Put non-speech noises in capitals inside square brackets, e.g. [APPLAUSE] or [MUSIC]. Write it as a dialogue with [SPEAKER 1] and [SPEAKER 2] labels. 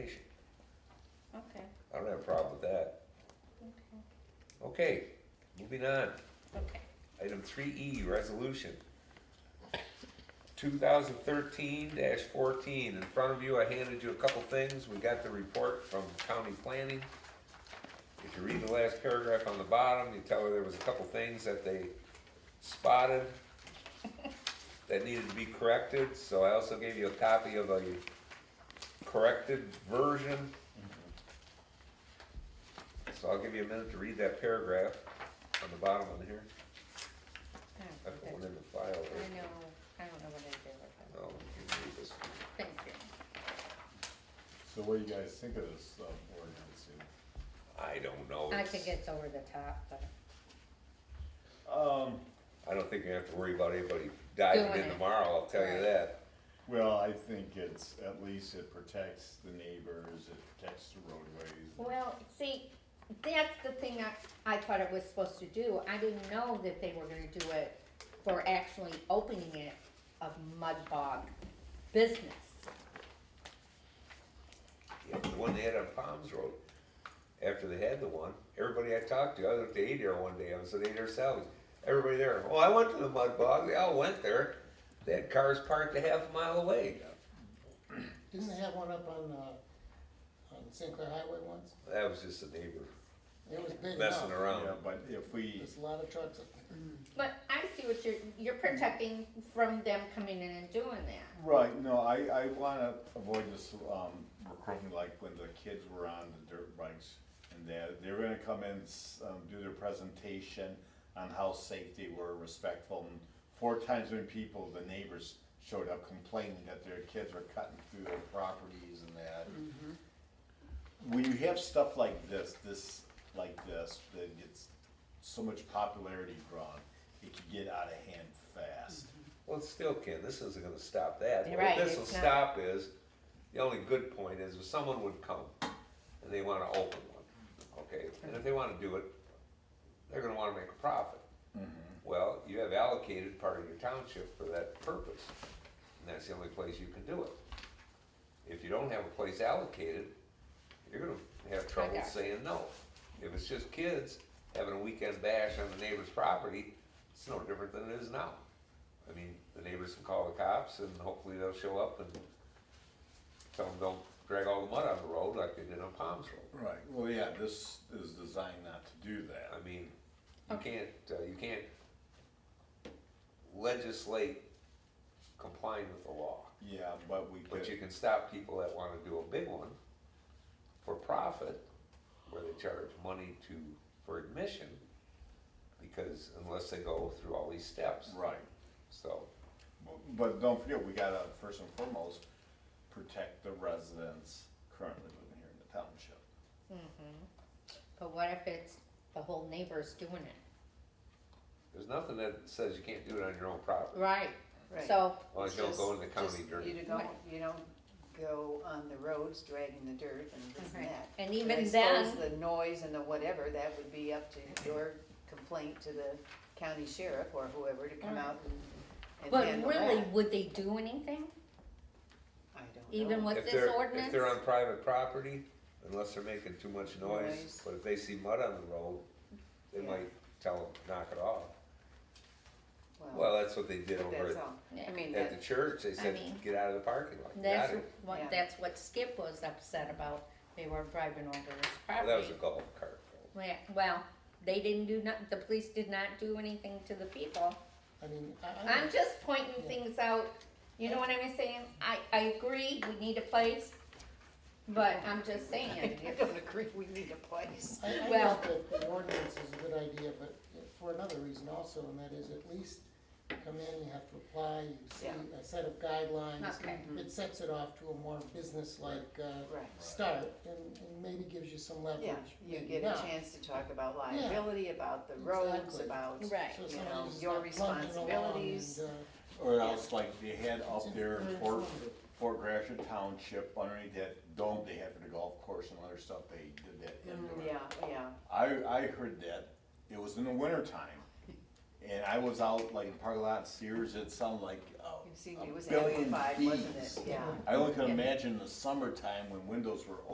[SPEAKER 1] I don't have a problem with that. Okay, moving on.
[SPEAKER 2] Okay.
[SPEAKER 1] Item three E, resolution. Two thousand thirteen fourteen, in front of you, I handed you a couple things, we got the report from county planning. If you read the last paragraph on the bottom, you tell her there was a couple things that they spotted that needed to be corrected, so I also gave you a copy of a corrected version. So I'll give you a minute to read that paragraph on the bottom of here.
[SPEAKER 2] Oh,
[SPEAKER 1] I put
[SPEAKER 2] good.
[SPEAKER 1] one in the file
[SPEAKER 2] I
[SPEAKER 1] there. Oh,
[SPEAKER 2] know, I don't know what I did with them.
[SPEAKER 1] No, you can read this.
[SPEAKER 2] Thank you.
[SPEAKER 3] So what do you guys think of this uh, ordinance here?
[SPEAKER 1] I don't know.
[SPEAKER 2] I
[SPEAKER 1] It's-
[SPEAKER 2] think it's over the top, but
[SPEAKER 3] Um,
[SPEAKER 1] I don't think you have to worry about anybody diving
[SPEAKER 2] Doing
[SPEAKER 1] in
[SPEAKER 2] it.
[SPEAKER 1] tomorrow, I'll tell you
[SPEAKER 2] Right.
[SPEAKER 1] that.
[SPEAKER 3] well, I think it's, at least it protects the neighbors, it protects the roadways.
[SPEAKER 2] Well, see, that's the thing I, I thought it was supposed to do. I didn't know that they were gonna do it for actually opening it of mud bog business.
[SPEAKER 1] Yeah, the one they had on Palms Road, after they had the one, everybody I talked to, I was at the Adair one day, I was at Adair Salvage. Everybody there, oh, I went to the mud bog, they all went there. They had cars parked a half mile away.
[SPEAKER 4] Didn't they have one up on, uh, on Sinclair Highway once?
[SPEAKER 1] That was just a neighbor
[SPEAKER 4] It was big enough.
[SPEAKER 1] messing
[SPEAKER 3] Yeah,
[SPEAKER 1] around.
[SPEAKER 3] but if we,
[SPEAKER 4] There's a lot of trucks up there.
[SPEAKER 2] But I see what you're, you're protecting from them coming in and doing that.
[SPEAKER 3] right, no, I, I wanna avoid this, um, recruiting, like when the kids were on the dirt bikes. And they're, they're gonna come in, s- um, do their presentation on how safe they were, respectful. and Four times when people, the neighbors showed up complaining that their kids were cutting through their properties and that. when you have stuff like this, this, like this, that gets so much popularity drawn, it can get out of hand fast.
[SPEAKER 1] Well, it still can, this isn't gonna stop that.
[SPEAKER 2] You're
[SPEAKER 1] What
[SPEAKER 2] right,
[SPEAKER 1] this will
[SPEAKER 2] it's not.
[SPEAKER 1] stop is, the only good point is if someone would come and they wanna open one, okay? And if they wanna do it, they're gonna wanna make a profit. Well, you have allocated part of your township for that purpose, and that's the only place you can do it. If you don't have a place allocated, you're gonna have trouble
[SPEAKER 2] got you.
[SPEAKER 1] saying no. If it's just kids having a weekend bash on the neighbor's property, it's no different than it is now. I mean, the neighbors can call the cops and hopefully they'll show up and tell them don't drag all the mud on the road like they did on Palms Road.
[SPEAKER 3] Right, well, yeah, this is designed not to do that.
[SPEAKER 1] I mean, you can't, uh, you can't legislate complying with the law.
[SPEAKER 3] Yeah, but we
[SPEAKER 1] But you
[SPEAKER 3] could,
[SPEAKER 1] can stop people that wanna do a big one for profit, where they charge money to, for admission, because unless they go through all these steps,
[SPEAKER 3] right,
[SPEAKER 1] so.
[SPEAKER 3] Bu- but don't forget, we gotta, first and foremost, protect the residents currently living here in the township.
[SPEAKER 2] But what if it's the whole neighbors doing it?
[SPEAKER 1] There's nothing that says you can't do it on your own property,
[SPEAKER 2] Right,
[SPEAKER 5] Right.
[SPEAKER 2] so,
[SPEAKER 1] unless you don't go in the
[SPEAKER 5] Just-
[SPEAKER 1] county
[SPEAKER 5] just
[SPEAKER 1] during.
[SPEAKER 5] You to go, you don't go on the roads dragging the dirt and this
[SPEAKER 2] Okay.
[SPEAKER 5] and that.
[SPEAKER 2] And
[SPEAKER 5] But
[SPEAKER 2] even
[SPEAKER 5] I
[SPEAKER 2] then-
[SPEAKER 5] suppose The noise and the whatever, that would be up to your complaint to the county sheriff or whoever to come
[SPEAKER 2] Right.
[SPEAKER 5] out and, and
[SPEAKER 2] Mm. but
[SPEAKER 5] handle
[SPEAKER 2] really,
[SPEAKER 5] that.
[SPEAKER 2] would they do anything,
[SPEAKER 5] I don't
[SPEAKER 2] even
[SPEAKER 5] know.
[SPEAKER 2] with
[SPEAKER 1] If
[SPEAKER 2] this
[SPEAKER 1] they're-
[SPEAKER 2] ordinance?
[SPEAKER 1] If they're on private property, unless they're making too much noise,
[SPEAKER 5] Noise.
[SPEAKER 1] but if they see mud on the road, they
[SPEAKER 5] Yeah.
[SPEAKER 1] might tell them, knock it off.
[SPEAKER 5] Well,
[SPEAKER 1] Well, that's what they did
[SPEAKER 5] but
[SPEAKER 1] over
[SPEAKER 5] Oh. that's
[SPEAKER 1] at,
[SPEAKER 5] all. I
[SPEAKER 2] Yeah.
[SPEAKER 5] mean,
[SPEAKER 1] at
[SPEAKER 5] that,
[SPEAKER 1] the church, they said,
[SPEAKER 2] mean-
[SPEAKER 1] get out of the parking lot, You
[SPEAKER 2] That's
[SPEAKER 1] got it.
[SPEAKER 2] what,
[SPEAKER 5] Yeah.
[SPEAKER 2] that's what Skip was upset about, they were driving over his
[SPEAKER 1] Well, That was
[SPEAKER 2] property.
[SPEAKER 1] a golf cart.
[SPEAKER 2] Well, well, they didn't do not, the police did not do anything to the people.
[SPEAKER 4] I mean,
[SPEAKER 5] Oh.
[SPEAKER 4] I, I
[SPEAKER 2] I'm
[SPEAKER 4] don't,
[SPEAKER 2] just pointing
[SPEAKER 4] Yeah.
[SPEAKER 2] things out, you know what I'm saying? I, I agree, we need a place, but I'm just saying,
[SPEAKER 5] [LAUGHS] I don't agree, we need a place.
[SPEAKER 2] [LAUGHS]
[SPEAKER 4] I, I
[SPEAKER 2] well-
[SPEAKER 4] think that the ordinance is a good idea, but for another reason also, and that is at least you come in, you have to apply, you see
[SPEAKER 5] Yeah.
[SPEAKER 4] a set of guidelines. Mm-hmm.
[SPEAKER 2] Okay.
[SPEAKER 4] It sets it off to a more business-like, uh,
[SPEAKER 5] Right.
[SPEAKER 4] start, and, and maybe gives you some leverage.
[SPEAKER 5] Yeah, you
[SPEAKER 4] maybe
[SPEAKER 5] get a
[SPEAKER 4] not.
[SPEAKER 5] chance to talk about liability, about the roads,
[SPEAKER 4] Exactly.
[SPEAKER 5] about,
[SPEAKER 2] Right.
[SPEAKER 4] So
[SPEAKER 5] you
[SPEAKER 4] somebody's
[SPEAKER 5] know,
[SPEAKER 4] just
[SPEAKER 5] your
[SPEAKER 4] not plunking along
[SPEAKER 5] responsibilities.
[SPEAKER 4] and, uh,
[SPEAKER 3] Or else like they had up there in
[SPEAKER 4] It's
[SPEAKER 3] Fort,
[SPEAKER 4] informative.
[SPEAKER 3] Fort Gratiot Township, underneath that dome, they had for the golf course and other stuff, they did that
[SPEAKER 1] uh,
[SPEAKER 3] indoor.
[SPEAKER 5] Mm, yeah, yeah.
[SPEAKER 3] I, I heard that, it was in the wintertime, and I was out like in parking lot Sears, it sounded like uh,
[SPEAKER 5] You
[SPEAKER 3] a
[SPEAKER 5] see, it
[SPEAKER 3] a
[SPEAKER 5] was
[SPEAKER 3] billion
[SPEAKER 5] amplified, wasn't
[SPEAKER 3] bees.
[SPEAKER 5] it? Yeah.
[SPEAKER 3] I only can
[SPEAKER 5] Yeah.
[SPEAKER 3] imagine the summertime when windows were